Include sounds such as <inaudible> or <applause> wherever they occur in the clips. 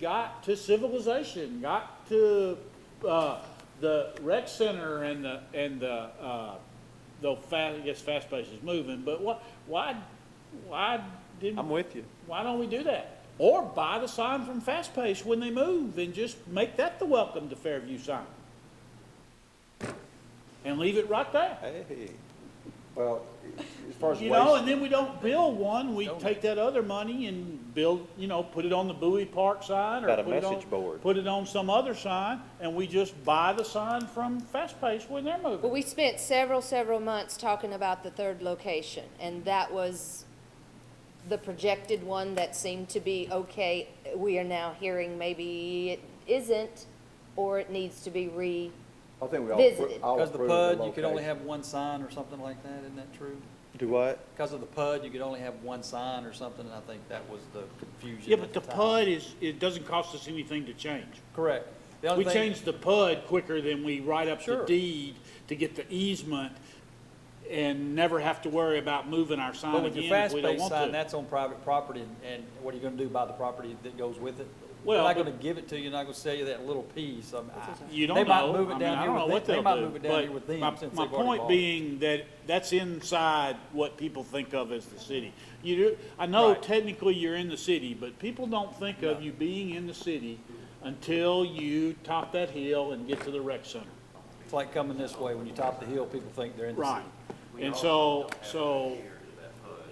got to civilization, got to, uh, the rec center and the, and the, uh, though fast, I guess fast pace is moving, but what, why, why I'm didn't, with you. why don't we do that? Or buy the sign from Fast Pace when they move and just make that the welcome to Fairview sign. And leave it right there. Hey, Well, as far as You know, and waste, then we don't build one, we take that other money and build, you know, put it on the Bowie Park sign or. Got a put it on- message board. Put it on some other sign and we just buy the sign from Fast Pace when they're Well, moving. we spent several, several months talking about the third location, and that was the projected one that seemed to be okay. We are now hearing maybe it isn't, or it needs to be re, I think we all, visited. appro- all Because the approve the PUD, you could only location. have one sign or something like that, isn't that true? do what? Because of the PUD, you could only have one sign or something, and I think that was the confusion Yeah, but at the the time. PUD is, it doesn't cost us anything to change. Correct. The only We thing- changed the PUD quicker than we write up the Sure. deed to get the easement and never have to worry about moving our But sign with again your if fast we don't pace want sign, to. that's on private property, and- and what are you gonna do about the property that goes with it? They're Well, not but- gonna give it to you, they're not gonna sell you that little piece. I'm- I- You They don't might know. move it I mean, down I here don't know with what them. They they'll might do, move it down here with but them my- since My they've already point bought it. being that that's inside what people think of as the city. You do, I know Right. technically you're in the city, but people don't think of you being in the city until you top that hill and get to the rec center. It's like coming this way, when you top the hill, people think they're in the Right, city. and so, so,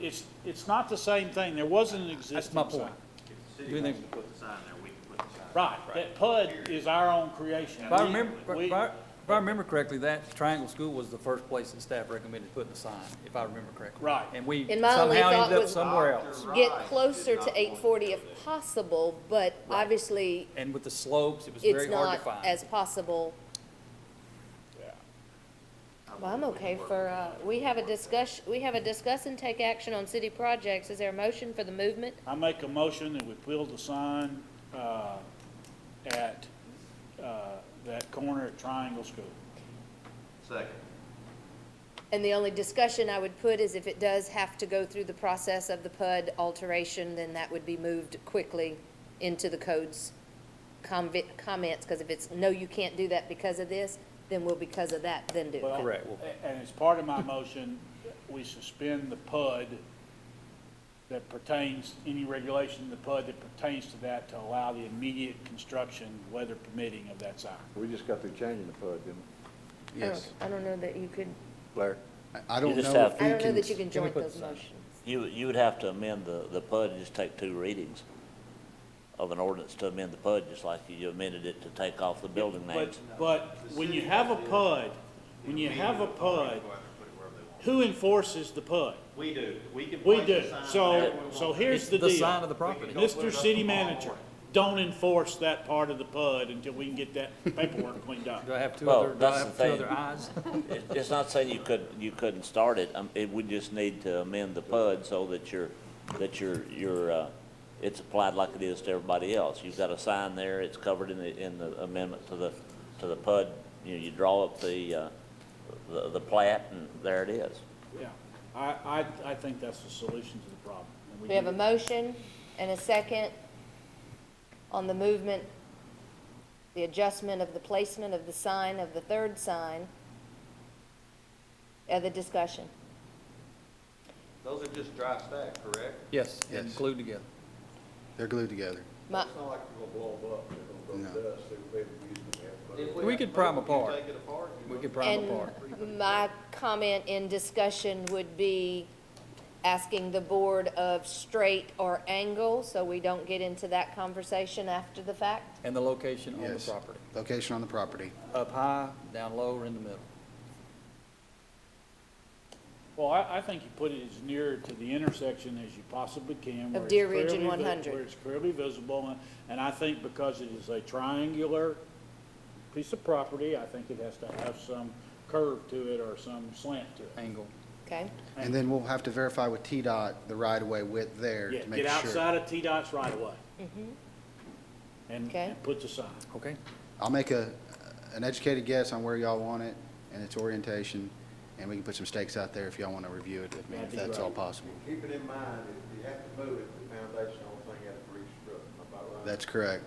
it's, it's not the same thing, there wasn't an That's existing my sign. point. If the Do city they- wants to put the sign there, we can put the sign. Right, that PUD is our own creation. If I We- remember, we- if I- if I remember correctly, that Triangle School was the first place that staff recommended putting the sign, if I remember correctly. Right. And we And my somehow only thought ended up was- somewhere else. get closer to eight forty if possible, but obviously, And with the slopes, it was it's very hard not to find. as possible. Well, I'm okay for, uh, we have a discuss, we have a discuss and take action on city projects. Is there a motion for the movement? I make a motion that we build the sign, uh, at, uh, that corner at Triangle School. Second. And the only discussion I would put is if it does have to go through the process of the PUD alteration, then that would be moved quickly into the code's convi- comments, because if it's, no, you can't do that because of this, then we'll because of that, then do Well, it. Correct. a- And as part of my motion, we suspend the PUD that pertains, any regulation in the PUD that pertains to that to allow the immediate construction, weather permitting of that sign. We just got through changing the PUD, didn't we? Yes. I don't know that you could, Blair? I- I don't You just know have- if I we don't know can, that you can Can we joint put those the sign? motions. You, you would have to amend the, the PUD and just take two readings of an ordinance to amend the PUD, just like you amended it to take off the building But, names. but when you have a PUD, when you have a PUD, Go out there and put it wherever they want. who enforces the PUD? We do, we can. We place the do. sign So, wherever we want. so here's It's the the sign of deal. the property. Mr. City Manager, don't enforce that part of the PUD until we can get that paperwork cleaned <laughs> up. Do I have two Well, other, do I that's have two the thing. <laughs> other eyes? It- It's not saying you couldn't, you couldn't start it, um, it would just need to amend the PUD so that you're, that you're, you're, uh, it's applied like it is to everybody else. You've got a sign there, it's covered in the, in the amendment to the, to the PUD, you know, you draw up the, uh, the, the plat, and there it is. Yeah, I, I, I think that's the solution to the problem. and We have do a it. motion and a second on the movement, the adjustment of the placement of the sign, of the third sign. Other discussion? Those are just dry stack, correct? Yes, Yes. and glued together. they're glued together. My, It's not like they're gonna blow them up, they're gonna No. go dust, they're gonna be able to use them, they have If to put it- We have could to prime move, apart. You take it apart. you We move could it. prime apart. And my comment in discussion would be asking the board of straight or angle, so we don't get into that conversation after the fact. And the location on the Yes. property, Location on the property. up high, down low, or in the middle. Well, I, I think you put it as near to the intersection as you possibly can. where it's Deer Ridge and clearly vi- 100. Where it's clearly visible, and, and I think because it is a triangular piece of property, I think it has to have some curve to it or some slant to it. Angle. Okay? And then we'll have to verify with TDOT the right-of-way width there Yeah, to make get sure. outside of T-Dot's right away. And, Mm-hmm. Okay. and put the sign. Okay. I'll make a, an educated guess on where y'all want it and its orientation, and we can put some stakes out there if y'all want to review it with me, That'd if be that's great. all possible. Keep it in mind, if you have to move it, the foundation, the whole thing has to restructure, am I right? That's correct.